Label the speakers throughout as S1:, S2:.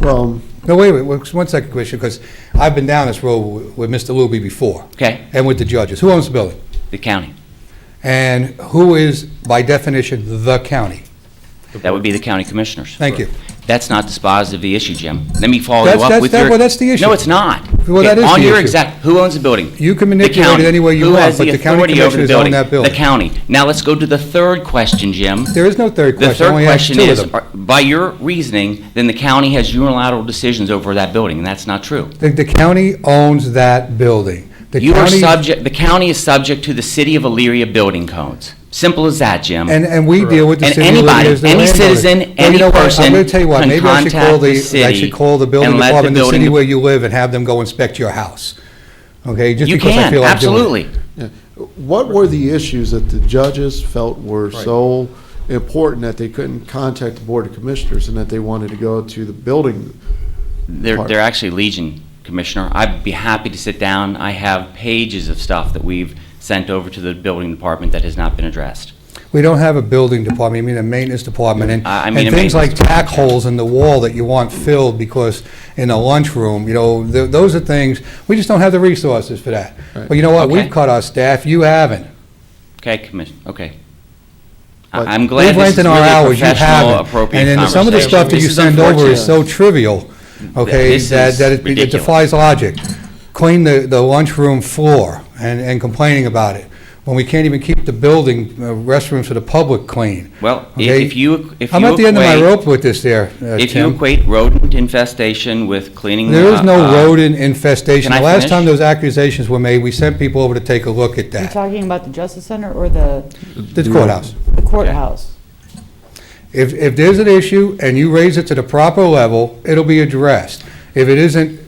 S1: Well,
S2: No, wait, wait, wait, one second, Commissioner, because I've been down this road with- with Mr. Luby before,
S3: Okay,
S2: and with the judges. Who owns the building?
S3: the county.
S2: And who is, by definition, the county?
S3: That would be the county commissioners.
S2: Thank you.
S3: That's not dispositive of the issue, Jim. Let me follow
S2: That's-
S3: you up
S2: that's-
S3: with
S2: that-
S3: your...
S2: well, that's the issue.
S3: No, it's not.
S2: Well, that
S3: Okay,
S2: is
S3: On
S2: the
S3: your
S2: issue.
S3: exact, who owns the building?
S2: You can
S3: The
S2: manipulate it
S3: county.
S2: any way you
S3: Who
S2: want,
S3: has
S2: but the county
S3: authority over the
S2: commissioners own that building.
S3: The county. Now, let's go to the third question, Jim.
S2: There is no third
S3: The
S2: question. I
S3: third
S2: only asked
S3: question
S2: two of
S3: is,
S2: them.
S3: are- by your reasoning, then the county has unilateral decisions over that building, and that's not true.
S2: The the county owns that building. The
S3: You are
S2: county-
S3: subject, the county is subject to the City of Elyria building codes. Simple as that, Jim.
S2: And, and we deal with the
S3: And
S2: city of Liberty
S3: anybody,
S2: as the
S3: any
S2: landowner.
S3: citizen,
S2: Well, you
S3: any
S2: know what? I'm
S3: person
S2: going to tell you what,
S3: can
S2: maybe I should call
S3: contact the
S2: I
S3: city
S2: should call the building
S3: and let the
S2: department, in the
S3: building
S2: city
S3: de-
S2: where you live, and have them go inspect your house, okay? Just
S3: You
S2: because I
S3: can,
S2: feel like doing it.
S3: absolutely.
S1: what were the issues that the judges felt were so important that they couldn't contact the Board of Commissioners and that they wanted to go to the building?
S3: They're,
S1: Park.
S3: they're actually Legion, Commissioner. I'd be happy to sit down. I have pages of stuff that we've sent over to the building department that has not been addressed.
S2: We don't have a building department, I mean a maintenance department, and,
S3: I- I
S2: and
S3: mean a
S2: things like
S3: maintenance
S2: tack holes in the wall that you want filled because in the lunchroom, you know, th- those are things, we just don't have the resources for that. But you know what,
S3: Okay.
S2: we've cut our staff, you haven't.
S3: Okay, Commissioner, okay.
S1: But
S3: I- I'm glad
S2: We've
S3: this is
S2: rented
S3: really
S2: our
S3: a
S2: hours, you
S3: professional,
S2: haven't.
S3: appropriate
S2: And then some of the
S3: conversation.
S2: stuff that you
S1: This is
S2: send over
S1: unfortunate.
S2: is so trivial, okay,
S3: This is
S2: that, that it- it
S3: ridiculous.
S2: defies logic. Clean the, the lunchroom floor and, and complaining about it, when we can't even keep the building, uh, restrooms for the public clean.
S3: Well, i-
S2: Okay.
S3: if you, if you
S2: I'm
S3: equate...
S2: at the end of my rope with this there, uh,
S3: If you
S2: Tim.
S3: equate rodent infestation with cleaning...
S2: There is
S3: uh,
S2: no
S3: uh,
S2: rodent infestation.
S3: Can I
S2: The last
S3: finish?
S2: time those accusations were made, we sent people over to take a look at
S4: Are you
S2: that.
S4: talking about the Justice Center or the
S2: The courthouse.
S4: the courthouse?
S2: If, if there's an issue and you raise it to the proper level, it'll be addressed. If it isn't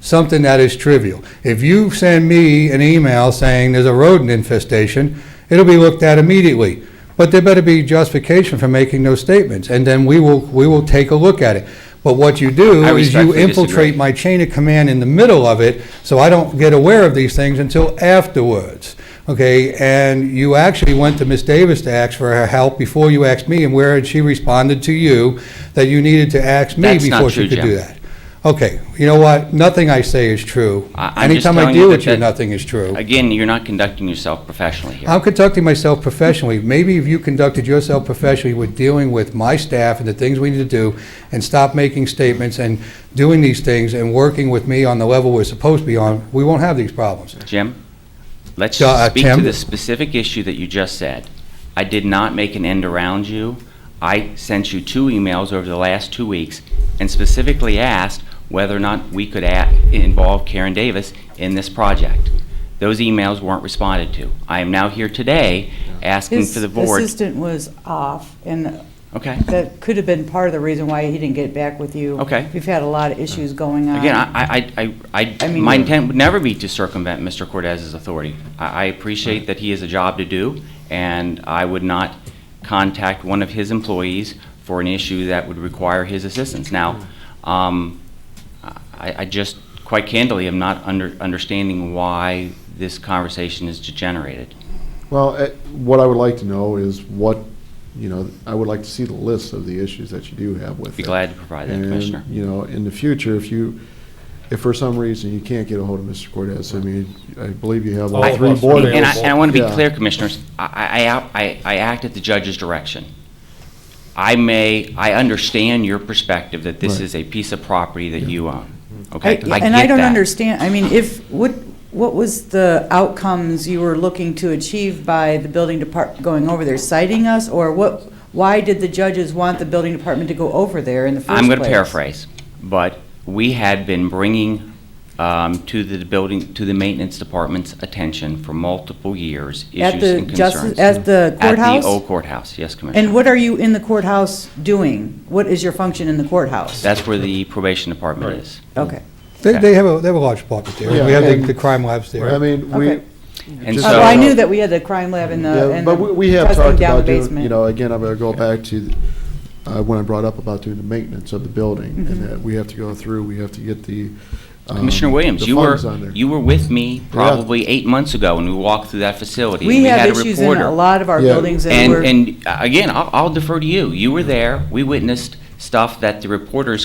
S2: something that is trivial. If you send me an email saying there's a rodent infestation, it'll be looked at immediately. But there better be justification for making those statements, and then we will, we will take a look at it. But what you do
S3: I
S2: is you
S3: respectfully disagree.
S2: infiltrate my chain of command in the middle of it, so I don't get aware of these things until afterwards, okay? And you actually went to Miss Davis to ask for her help before you asked me, and where had she responded to you that you needed to ask me
S3: That's not
S2: before she
S3: true,
S2: could
S3: Jim.
S2: do that? Okay, you know what? Nothing I say is true.
S3: I- I'm just
S2: Anytime I
S3: telling
S2: deal
S3: you
S2: with
S3: that
S2: you,
S3: that-
S2: nothing is true.
S3: Again, you're not conducting yourself professionally here.
S2: I'm conducting myself professionally. Maybe if you conducted yourself professionally with dealing with my staff and the things we need to do, and stop making statements and doing these things and working with me on the level we're supposed to be on, we won't have these problems.
S3: Jim, let's
S2: Uh,
S3: speak to
S2: Tim?
S3: the specific issue that you just said. I did not make an end around you. I sent you two emails over the last two weeks and specifically asked whether or not we could a- involve Karen Davis in this project. Those emails weren't responded to. I am now here today asking
S4: His
S3: for the board.
S4: assistant was off, and
S3: Okay.
S4: that could have been part of the reason why he didn't get back with you.
S3: Okay.
S4: We've had a lot of issues going on.
S3: Again, I, I, I, I,
S4: I mean-
S3: my intent would never be to circumvent Mr. Cordez's authority. I, I appreciate that he has a job to do, and I would not contact one of his employees for an issue that would require his assistance. Now, um, I, I just, quite candidly, am not under, understanding why this conversation is degenerated.
S1: Well, eh, what I would like to know is what, you know, I would like to see the list of the issues that you do have with
S3: Be
S1: it.
S3: glad to provide that,
S1: And,
S3: Commissioner.
S1: you know, in the future, if you, if for some reason you can't get a hold of Mr. Cortez, I mean, I believe you have all
S5: All of
S1: three
S5: us are
S1: board
S5: available.
S3: And I,
S1: members.
S3: and I want to be
S1: Yeah.
S3: clear, Commissioners, I, I, I- I, I act at the judge's direction. I may, I understand your perspective that this
S1: Right.
S3: is a piece of property that you own,
S4: I-
S3: okay?
S4: And I
S3: get
S4: don't
S3: that.
S4: understand, I mean, if, what, what was the outcomes you were looking to achieve by the building department going over there, citing us? Or what, why did the judges want the building department to go over there in the first place?
S3: I'm going to paraphrase, but we had been bringing um, to the building, to the maintenance department's attention for multiple years,
S4: At
S3: issues
S4: the
S3: and
S4: justice,
S3: concerns.
S4: at the
S3: At
S4: courthouse?
S3: the old courthouse, yes, Commissioner.
S4: And what are you in the courthouse doing? What is your function in the courthouse?
S3: That's where the probation department is.
S4: Okay.
S2: They, they have a, they have a large department there.
S1: Yeah,
S2: We have the-
S1: and-
S2: the crime labs
S1: I
S2: there.
S1: mean, we.
S4: Okay.
S3: And
S1: just-
S3: so.
S4: Uh, Well, I knew that we had the crime lab in the,
S1: Yeah,
S4: and
S1: but we- we have
S4: the
S1: talked
S4: testing down the
S1: about doing,
S4: basement.
S1: you know, again, I'm gonna go back to, uh, when I brought up about doing the maintenance of the building,
S4: Mm-hmm.
S1: and that we have to go through, we have to get the. um,
S3: Commissioner Williams,
S1: the
S3: you were,
S1: funds on there.
S3: you were with me probably eight months ago when we walked through that facility.
S4: We
S3: and
S4: have
S3: had a
S4: issues in a
S3: reporter.
S4: lot of our
S1: Yeah.
S4: buildings and
S3: And,
S4: we're.
S3: and uh, again, I'll I'll defer to you. You were there, we witnessed stuff that the reporters